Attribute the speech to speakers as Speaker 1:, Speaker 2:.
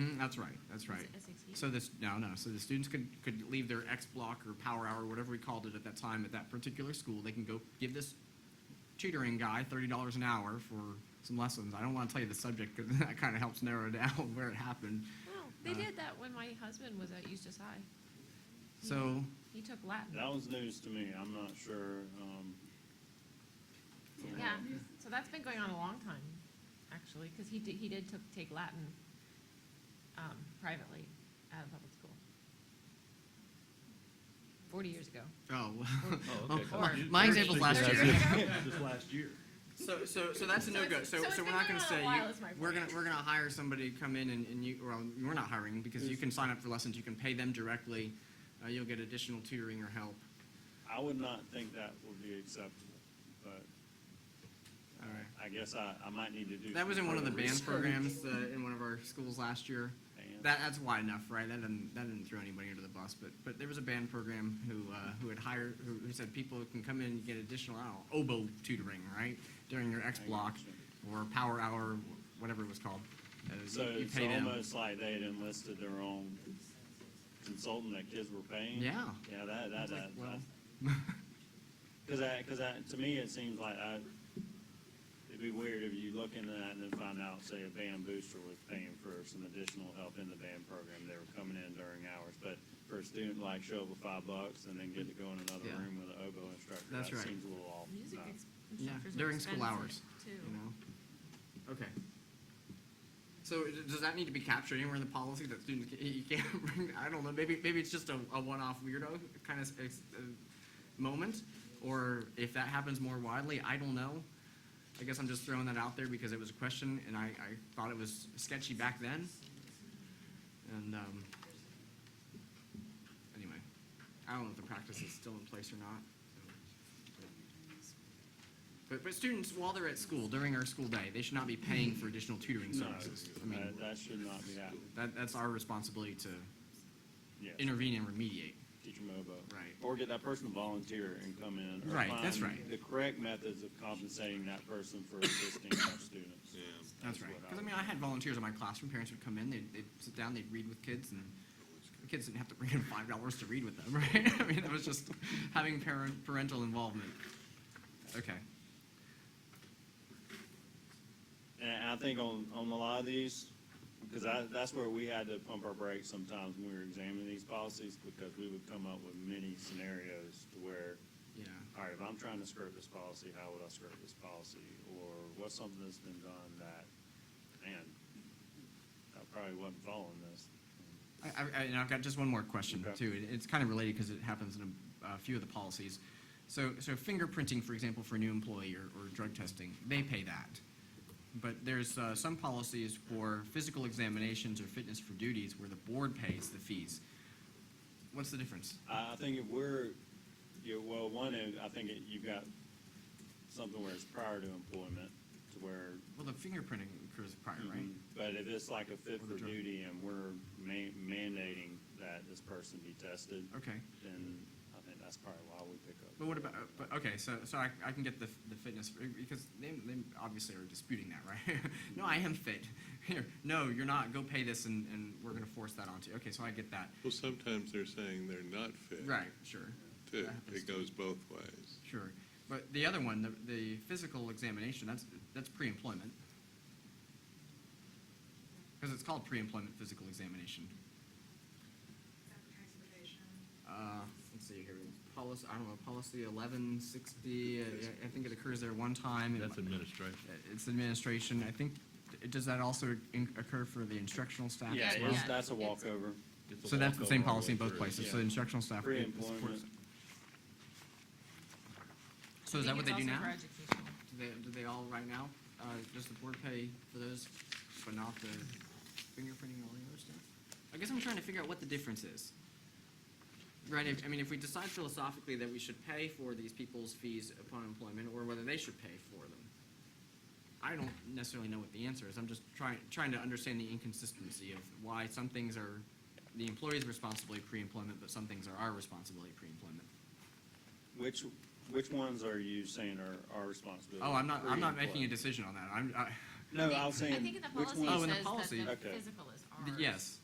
Speaker 1: Mm, That's right, that's right.
Speaker 2: SAT?
Speaker 1: So this, no, no, so the students could, could leave their X block or power hour, whatever we called it at that time at that particular school. They can go give this tutoring guy thirty dollars an hour for some lessons. I don't want to tell you the subject because that kind of helps narrow down where it happened.
Speaker 2: Well, they
Speaker 1: Uh,
Speaker 2: did that when my husband was at Eustis High.
Speaker 1: So,
Speaker 2: He took Latin.
Speaker 3: That was news to me. I'm not sure. Um,
Speaker 2: Yeah, so that's been going on a long time, actually, because he did, he did took, take Latin um, privately at a public school. Forty years ago.
Speaker 1: oh,
Speaker 4: Oh, okay.
Speaker 2: Or-
Speaker 1: my example's last
Speaker 2: Or-
Speaker 1: year.
Speaker 4: Just last year.
Speaker 1: So, so, so that's a
Speaker 2: So
Speaker 1: no go.
Speaker 2: it's-
Speaker 1: So,
Speaker 2: so
Speaker 1: so,
Speaker 2: it's
Speaker 1: we're
Speaker 2: been
Speaker 1: not going
Speaker 2: going
Speaker 1: to
Speaker 2: on a
Speaker 1: say
Speaker 2: while
Speaker 1: you-
Speaker 2: is my
Speaker 1: we're going
Speaker 2: point.
Speaker 1: to we're going to hire somebody to come in and, and you. Well, we're not hiring because you can sign up for lessons. You can pay them directly. Uh, you'll get additional tutoring or help.
Speaker 3: I would not think that would be acceptable, but
Speaker 1: All right.
Speaker 3: I guess I, I might need to do.
Speaker 1: That was
Speaker 3: some
Speaker 1: in one of the
Speaker 3: further
Speaker 1: band programs
Speaker 3: research.
Speaker 1: uh, in one of our schools last year.
Speaker 3: Band.
Speaker 1: That, that's wide enough, right? That didn't, that didn't throw anybody under the bus, but, but there was a band program who, uh, who had hired, who, who said people can come in and get additional, I don't know, oboe tutoring, right? During your X
Speaker 3: I
Speaker 1: block
Speaker 3: gotcha.
Speaker 1: or power hour, whatever it was called. Uh, you-
Speaker 3: So
Speaker 1: you
Speaker 3: it's
Speaker 1: pay them.
Speaker 3: almost like they had enlisted their own consultant that kids were paying.
Speaker 1: Yeah.
Speaker 3: Yeah, that, that,
Speaker 1: It's like,
Speaker 3: that.
Speaker 1: well,
Speaker 3: Because I, because I, to me, it seems like I, it'd be weird if you look into that and then find out, say, a band booster was paying for some additional help in the band program. They were coming in during hours, but for a student like show up with five bucks and then get to go in another
Speaker 1: Yeah.
Speaker 3: room with an oboe instructor, that
Speaker 1: That's right.
Speaker 3: seems a little off.
Speaker 2: Music
Speaker 3: Uh,
Speaker 2: ex-
Speaker 1: Yeah,
Speaker 2: instructors are
Speaker 1: during school hours,
Speaker 2: expensive,
Speaker 1: you
Speaker 2: Too.
Speaker 1: know? Okay. So d- does that need to be captured anywhere in the policy that students, ca- you can't bring, I don't know, maybe, maybe it's just a, a one-off weirdo kind of uh, moment? Or if that happens more widely, I don't know. I guess I'm just throwing that out there because it was a question and I, I thought it was sketchy back then. And, um, anyway, I don't know if the practice is still in place or not. But, but students, while they're at school, during our school day, they should not be paying for additional tutoring
Speaker 3: No,
Speaker 1: services. I mean,
Speaker 3: that, that should not be happening,
Speaker 1: that, that's our responsibility to
Speaker 3: yes.
Speaker 1: intervene and remediate.
Speaker 3: Teach them oboe.
Speaker 1: Right.
Speaker 3: Or get that person to volunteer and come in. or
Speaker 1: Right, that's
Speaker 3: find
Speaker 1: right.
Speaker 3: The correct methods of compensating that person for assisting our students. Yeah.
Speaker 1: That's right.
Speaker 3: um,
Speaker 1: Because I mean, I had volunteers in my classroom. Parents would come in, they'd, they'd sit down, they'd read with kids, and the kids didn't have to bring in five dollars to read with them, right? I mean, it was just having parent parental involvement. Okay.
Speaker 3: And I think on, on a lot of these, because I, that's where we had to pump our brakes sometimes when we were examining these policies, because we would come up with many scenarios to where,
Speaker 1: Yeah.
Speaker 3: all right, if I'm trying to skirt this policy, how would I skirt this policy? Or what's something that's been done that, man, I probably wasn't following this.
Speaker 1: I, I, I- and I've got just one more question
Speaker 3: Okay.
Speaker 1: too. It- It's kind of related because it happens in a, a few of the policies. So, so fingerprinting, for example, for a new employee or, or drug testing, they pay that. But there's uh, some policies for physical examinations or fitness for duties where the board pays the fees. What's the difference?
Speaker 3: I, I think if we're, you, well, one, is, I think it- you've got something where it's prior to employment, to where mm-hmm,
Speaker 1: Well, the fingerprinting occurs prior, right?
Speaker 3: But if it's like a fit
Speaker 1: Or the
Speaker 3: for
Speaker 1: drug.
Speaker 3: duty and we're ma- mandating that this person be tested,
Speaker 1: Okay.
Speaker 3: then I think that's probably why we pick up.
Speaker 1: But what about, uh, but, okay, so, so I, I can get the, the fitness, because they, they obviously are disputing that, right? No, I am fit. Here, no, you're not, go pay this and, and we're gonna force that onto you. Okay, so I get that.
Speaker 5: Well, sometimes they're saying they're not fit.
Speaker 1: Right, sure,
Speaker 5: Too.
Speaker 1: That happens
Speaker 5: It
Speaker 1: too.
Speaker 5: goes both ways.
Speaker 1: sure. But the other one, the, the physical examination, that's, that's pre-employment. Because it's called pre-employment physical examination. Uh, let's see here, policy, I don't know, policy eleven sixty, I think it occurs there one time. It
Speaker 4: That's
Speaker 1: mi-
Speaker 4: administration.
Speaker 1: It's administration, I think, does that also in- occur for the instructional staff
Speaker 3: Yeah,
Speaker 1: as well?
Speaker 3: it's,
Speaker 2: Yeah.
Speaker 3: that's a walkover.
Speaker 4: It's a
Speaker 1: So that's the same
Speaker 4: walkover all
Speaker 1: policy in
Speaker 4: way
Speaker 1: both
Speaker 4: through.
Speaker 1: places, so
Speaker 3: yeah.
Speaker 1: instructional staff. it supports-
Speaker 3: Pre-employment.
Speaker 1: So is that
Speaker 2: I think
Speaker 1: what they
Speaker 2: it's
Speaker 1: do
Speaker 2: also
Speaker 1: now?
Speaker 2: for
Speaker 1: Do
Speaker 2: educational.
Speaker 1: they, do they all right now, uh, just the board pay for those, but not the fingerprinting and all the other stuff? I guess I'm trying to figure out what the difference is. Right, if, I mean, if we decide philosophically that we should pay for these people's fees upon employment, or whether they should pay for them. I don't necessarily know what the answer is, I'm just trying, trying to understand the inconsistency of why some things are the employee's responsibility pre-employment, but some things are our responsibility pre-employment.
Speaker 3: Which, which ones are you saying are our responsibility?
Speaker 1: Oh, I'm not, I'm not making a
Speaker 3: Pre-employment.
Speaker 1: decision on that, I'm, I,
Speaker 3: No, I was
Speaker 2: I think
Speaker 3: saying,
Speaker 2: in the
Speaker 3: which
Speaker 2: policy
Speaker 1: Oh,
Speaker 2: it
Speaker 1: in
Speaker 3: ones,
Speaker 1: the
Speaker 2: says
Speaker 1: policy.
Speaker 2: that the
Speaker 3: Okay.
Speaker 2: physical is
Speaker 1: Th-
Speaker 2: ours.
Speaker 1: Yes.